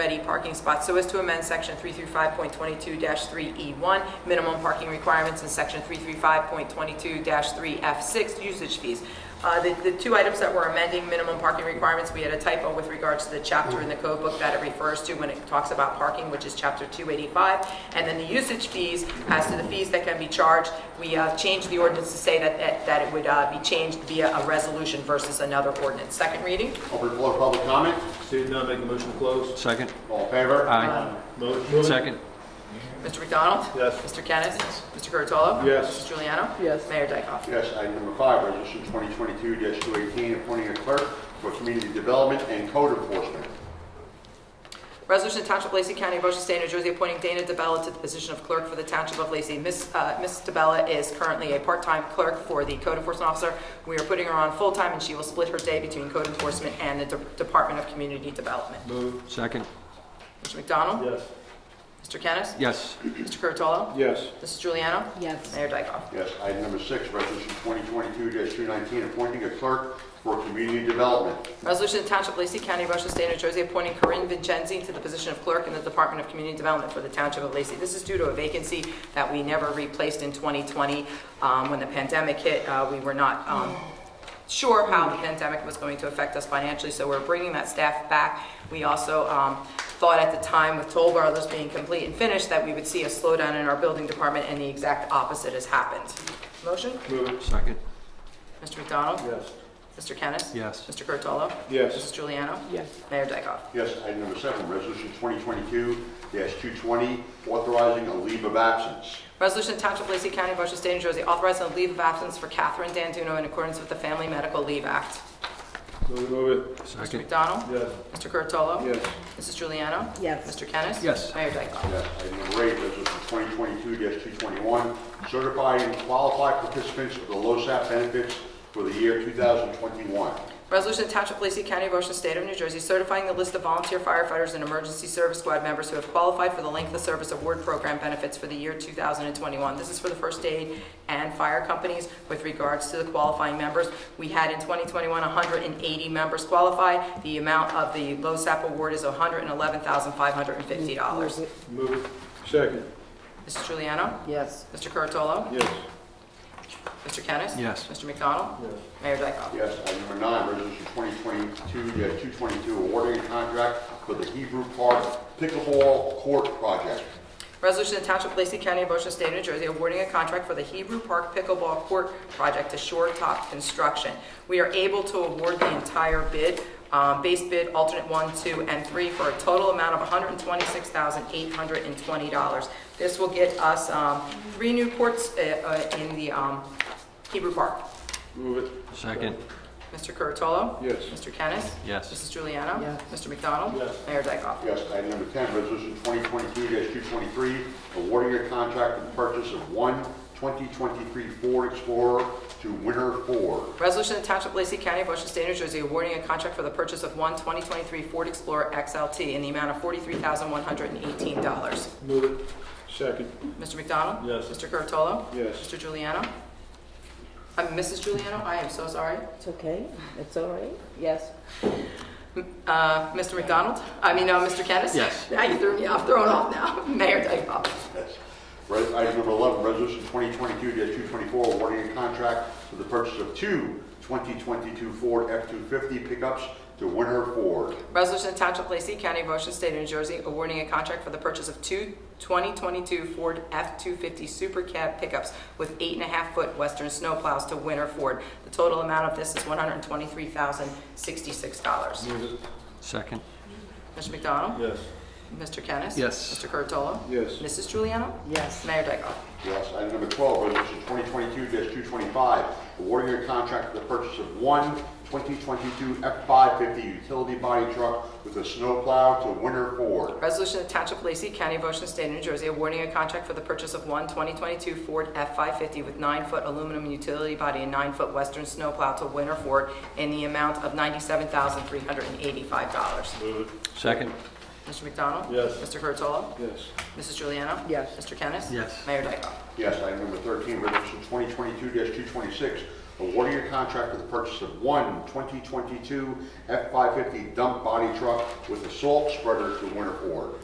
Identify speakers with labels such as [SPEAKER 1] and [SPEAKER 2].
[SPEAKER 1] steady parking spots so as to amend section 335.22-3E1, E minimum parking requirements, and section 335.22-3F6, usage fees. Uh, The the two items that we're amending, minimum parking requirements, we had a typo with regards to the chapter in the code book that it refers to when it talks about parking, which is chapter 285. And then the usage fees, as to the fees that can be charged, we uh, changed the ordinance to say that- that that it would uh, be changed via a resolution versus another ordinance. Second reading?
[SPEAKER 2] Open the floor for public comment.
[SPEAKER 3] Seeing none, make a motion to close.
[SPEAKER 4] Second.
[SPEAKER 2] All in favor?
[SPEAKER 4] Aye.
[SPEAKER 3] Motion.
[SPEAKER 4] Second.
[SPEAKER 1] Mr. McDonald?
[SPEAKER 3] Yes.
[SPEAKER 1] Mr. Kennis? Mr. Curatolo?
[SPEAKER 3] Yes.
[SPEAKER 1] Mrs. Juliano? Yes. Mayor Dyckoff?
[SPEAKER 2] Yes, item number five, resolution 2022-218, appointing a clerk for community development and code enforcement.
[SPEAKER 1] Resolution to Township of Lacey County, Ocean State, New Jersey, appointing Dana DeBella to the position of clerk for the Township of Lacey. Miss uh, Miss DeBella is currently a part-time clerk for the code enforcement officer. We are putting her on full-time, and she will split her day between code enforcement and the De- Department of Community Development.
[SPEAKER 3] Move.
[SPEAKER 4] Second.
[SPEAKER 1] Mr. McDonald?
[SPEAKER 3] Yes.
[SPEAKER 1] Mr. Kennis?
[SPEAKER 4] Yes.
[SPEAKER 1] Mr. Curatolo?
[SPEAKER 3] Yes.
[SPEAKER 1] Mrs. Juliano?
[SPEAKER 5] yes,
[SPEAKER 1] Mayor Dyckoff?
[SPEAKER 2] Yes, item number six, resolution 2022-219, appointing a clerk for community development.
[SPEAKER 1] Resolution to Township of Lacey County, Ocean State, New Jersey, appointing Corinne Vincenzi to the position of clerk in the Department of Community Development for the Township of Lacey. This is due to a vacancy that we never replaced in 2020. Um, When the pandemic hit, uh, we were not um, sure how the pandemic was going to affect us financially, so we're bringing that staff back. We also um, thought at the time, with toll barrels being complete and finished, that we would see a slowdown in our building department, and the exact opposite has happened. Motion?
[SPEAKER 3] Move.
[SPEAKER 4] Second.
[SPEAKER 1] Mr. McDonald?
[SPEAKER 3] Yes.
[SPEAKER 1] Mr. Kennis?
[SPEAKER 4] Yes.
[SPEAKER 1] Mr. Curatolo?
[SPEAKER 3] Yes.
[SPEAKER 1] Mrs. Juliano?
[SPEAKER 5] yes,
[SPEAKER 1] Mayor Dyckoff?
[SPEAKER 2] Yes, item number seven, resolution 2022-220, authorizing a leave of absence.
[SPEAKER 1] Resolution to Township of Lacey County, Ocean State, New Jersey, authorizing a leave of absence for Catherine Danduno in accordance with the Family Medical Leave Act.
[SPEAKER 3] Move, move it.
[SPEAKER 1] Mr.
[SPEAKER 4] Second.
[SPEAKER 1] McDonald?
[SPEAKER 3] Yes.
[SPEAKER 1] Mr. Curatolo?
[SPEAKER 3] Yes.
[SPEAKER 1] Mrs. Juliana?
[SPEAKER 5] yes,
[SPEAKER 1] Mr. Kennis?
[SPEAKER 4] Yes.
[SPEAKER 1] Mayor Dyckoff?
[SPEAKER 2] Yes, item number eight, resolution 2022-221, certifying qualified participants for the LoSAP benefits for the year 2021.
[SPEAKER 1] Resolution to Township of Lacey County, Ocean State of New Jersey, certifying the list of volunteer firefighters and emergency service squad members who have qualified for the length of service award program benefits for the year 2021. This is for the first aid and fire companies with regards to the qualifying members. We had in 2021, 180 members qualified. The amount of the LoSAP award is $111,550.
[SPEAKER 3] Move it. Second.
[SPEAKER 1] Mrs. Juliano?
[SPEAKER 5] yes,
[SPEAKER 1] Mr. Curatolo?
[SPEAKER 3] Yes.
[SPEAKER 1] Mr. Kennis?
[SPEAKER 4] Yes.
[SPEAKER 1] Mr. McDonald?
[SPEAKER 3] Yes.
[SPEAKER 1] Mayor Dyckoff?
[SPEAKER 2] Yes, item number nine, resolution 2022-222, awarding a contract for the Hebrew Park Pickleball Court Project.
[SPEAKER 1] Resolution to Township of Lacey County, Ocean State, New Jersey, awarding a contract for the Hebrew Park Pickleball Court Project to Shore Top Construction. We are able to award the entire bid, um, base bid, alternate one, two, and three, for a total amount of $126,820. This will get us um, three new courts uh, uh, in the um, Hebrew Park.
[SPEAKER 3] Move it.
[SPEAKER 4] Second.
[SPEAKER 1] Mr. Curatolo?
[SPEAKER 3] Yes.
[SPEAKER 1] Mr. Kennis?
[SPEAKER 4] Yes.
[SPEAKER 1] Mrs. Juliana?
[SPEAKER 5] Yes.
[SPEAKER 1] Mr. McDonald?
[SPEAKER 3] Yes.
[SPEAKER 1] Mayor Dyckoff?
[SPEAKER 2] Yes, item number 10, resolution 2022-223, awarding a contract for the purchase of one 2023 Ford Explorer to Winter Ford.
[SPEAKER 1] Resolution to Township of Lacey County, Ocean State, New Jersey, awarding a contract for the purchase of one 2023 Ford Explorer XLT in the amount of $43,118.
[SPEAKER 3] Move it. Second.
[SPEAKER 1] Mr. McDonald?
[SPEAKER 3] Yes.
[SPEAKER 1] Mr. Curatolo?
[SPEAKER 3] Yes.
[SPEAKER 1] Mr. Juliano? I'm Mrs. Juliano, I am so sorry.
[SPEAKER 5] it's okay, it's all right, yes,
[SPEAKER 1] Uh, Mr. McDonald? I mean, uh, Mr. Kennis?
[SPEAKER 4] Yes.
[SPEAKER 1] Now you threw me off, thrown off now. Mayor Dyckoff?
[SPEAKER 2] Yes. Res- Item number 11, resolution 2022-224, awarding a contract for the purchase of two 2022 Ford F-250 pickups to Winter Ford.
[SPEAKER 1] Resolution to Township of Lacey County, Ocean State, New Jersey, awarding a contract for the purchase of two 2022 Ford F-250 Super Cab pickups with eight and a half foot Western snowplows to Winter Ford. The total amount of this is $123,066.
[SPEAKER 3] Move it.
[SPEAKER 4] Second.
[SPEAKER 1] Mr. McDonald?
[SPEAKER 3] Yes.
[SPEAKER 1] Mr. Kennis?
[SPEAKER 4] Yes.
[SPEAKER 1] Mr. Curatolo?
[SPEAKER 3] Yes.
[SPEAKER 1] Mrs. Juliana?
[SPEAKER 5] yes,
[SPEAKER 1] Mayor Dyckoff?
[SPEAKER 2] Yes. Item number 12, resolution 2022-225, awarding a contract for the purchase of one 2022 F-550 utility body truck with a snowplow to Winter Ford.
[SPEAKER 1] Resolution of Township of Lacey County, Ocean State, New Jersey, awarding a contract for the purchase of one 2022 Ford F-550 with nine-foot aluminum utility body and nine-foot western snowplow to Winter Ford in the amount of $97,385.
[SPEAKER 3] Move it.
[SPEAKER 4] Second.
[SPEAKER 1] Mr. McDonald?
[SPEAKER 3] Yes.
[SPEAKER 1] Mr. Curatolo?
[SPEAKER 3] Yes.
[SPEAKER 1] Mrs. Juliana?
[SPEAKER 5] Yes.
[SPEAKER 1] Mr. Kennis?
[SPEAKER 4] Yes.
[SPEAKER 1] Mayor Dyckoff?
[SPEAKER 2] Yes, item number 13, resolution 2022-226, awarding a contract for the purchase of one 2022 F-550 dump body truck with a salt spreader to Winter Ford.